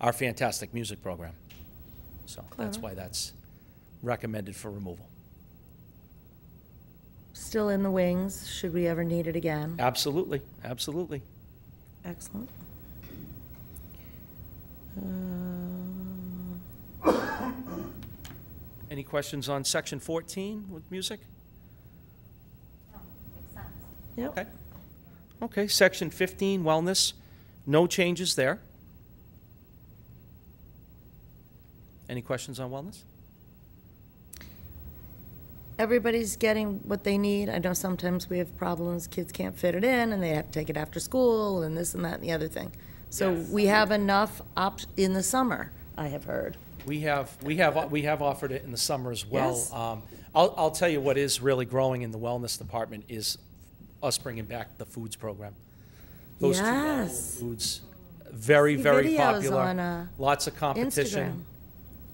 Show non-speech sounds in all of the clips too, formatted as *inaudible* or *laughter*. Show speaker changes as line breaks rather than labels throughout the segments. our fantastic music program. So that's
Clever.
why that's recommended for removal.
Still in the wings, should we ever need it again.
Absolutely, absolutely.
Excellent. Um,
Any questions on section 14 with music? Okay.
Yep,
Okay, section 15, wellness, no changes there. Any questions on wellness?
everybody's getting what they need. I know sometimes we have problems, kids can't fit it in, and they have to take it after school, and this and that and the other thing. So we have enough op, in the summer, I have heard.
We have, we have, we have offered it in the summer as well.
Yes.
Um, I'll, I'll tell you what is really growing in the wellness department is us bringing back the foods program. Those two Raoul
Yes.
foods, very,
See
very
videos on,
popular.
uh,
Lots of
Instagram.
competition.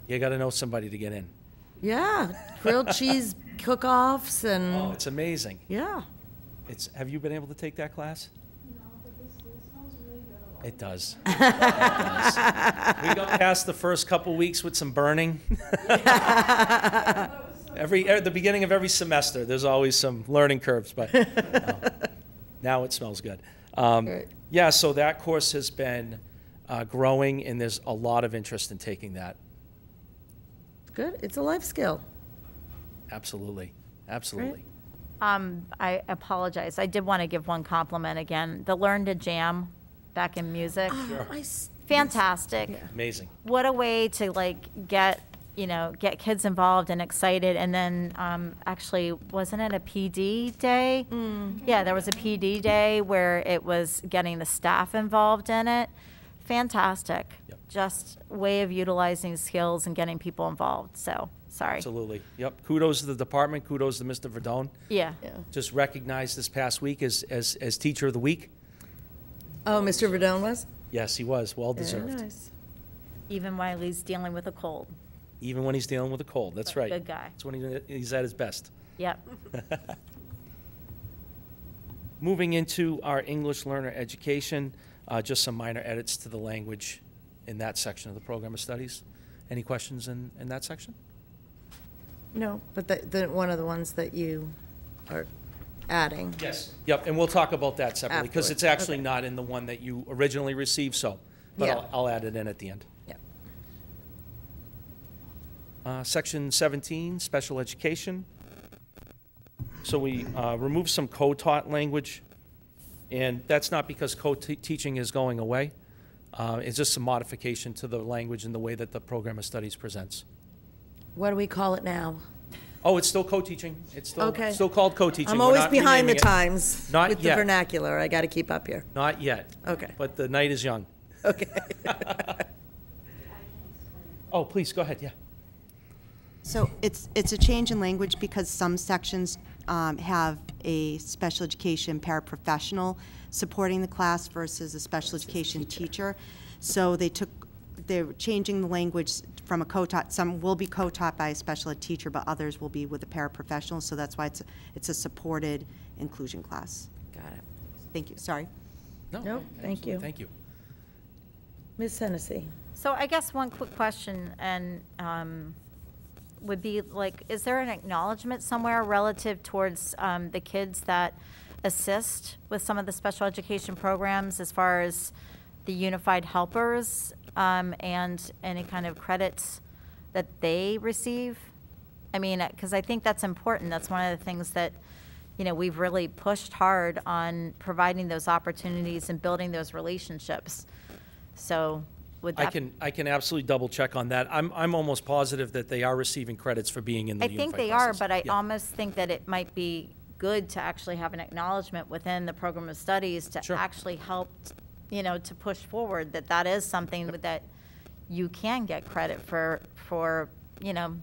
You gotta know somebody to get in.
Yeah,
*laughs*
grilled cheese cook-offs
Oh,
and,
it's amazing. *laughs*
yeah.
It's, have you been able to take that class? It does. It does. We got past the first couple weeks with some burning. Every, at the beginning of every semester, there's always some learning curves, but no. *laughs* now it smells good. Um,
Right.
Yeah, so that course has been uh, growing, and there's a lot of interest in taking that.
Good, it's a life skill.
Absolutely, absolutely.
Um, I apologize. I did want to give one compliment again. The Learn to Jam back in music.
I s-
Fantastic.
Amazing.
What a way to like get, you know, get kids involved and excited. And then um, actually, wasn't it a PD day? Yeah, there was a PD day where it was getting the staff involved in it. Fantastic.
Yep.
Just way of utilizing skills and getting people involved. So, sorry.
Absolutely. Yep. Kudos to the department. Kudos to Mr. Verdone.
Yeah.
Yeah.
Just recognized this past week as, as, as Teacher of the Week.
Oh, Mr. Verdone was?
Yes, he was. Well deserved.
nice.
Even while he's dealing with a cold.
Even when he's dealing with a cold. That's right.
Good guy.
That's when he- he's at his best.
Yep.
*laughs* Moving into our English learner education, uh, just some minor edits to the language in that section of the program of studies. Any questions in, in that section?
No, but the, the, one of the ones that you are adding.
Yes. Yep, and we'll talk about that separately because it's
Afterwards,
actually
okay.
not in the one that you originally received, so, but
Yeah.
I'll, I'll add it in at the end.
Yep.
Uh, Section 17, special education. So we uh, remove some co-taught language, and that's not because co-teaching is going away. Uh, It's just some modification to the language and the way that the program of studies presents.
What do we call it now?
Oh, it's still co-teaching. It's still,
Okay.
still called co-teaching.
I'm
We're
always
not
behind the
renaming it.
times
Not
with the
yet.
vernacular. I got to keep up here. *laughs*
Not yet.
Okay.
But the night is
*laughs*
young.
Okay.
Oh, please, go ahead, yeah.
So it's, it's a change in language because some sections um, have a special education paraprofessional supporting the class versus a special education teacher. So they took, they're changing the language from a co-taught, some will be co-taught by a special ed teacher, but others will be with a paraprofessional, so that's why it's, it's a supported inclusion class.
got it.
Thank you, sorry.
No,
No, thank
absolutely,
you.
Thank you.
Ms. Hennessy,
So I guess one quick question and um, would be like, is there an acknowledgement somewhere relative towards um, the kids that assist with some of the special education programs as far as the unified helpers um, and any kind of credits that they receive? I mean, because I think that's important. That's one of the things that, you know, we've really pushed hard on providing those opportunities and building those relationships. So would that?
I can, I can absolutely double check on that. I'm, I'm almost positive that they are receiving credits for being in the
I
unified
think they are,
classes.
but I
Yeah.
almost think that it might be good to actually have an acknowledgement within the program of studies to
Sure.
actually help, you know, to push forward that that is something that you can get credit for, for, you know,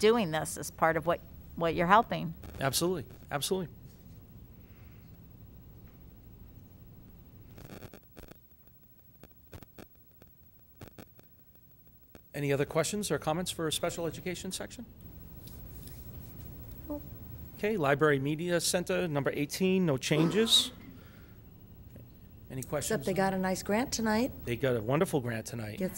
doing this as part of what, what you're helping.
Absolutely, absolutely. Any other questions or comments for special education section? Okay, Library Media Center, number 18, no changes. Any questions?
except they got a nice grant tonight.
They got a wonderful grant tonight.
Yes.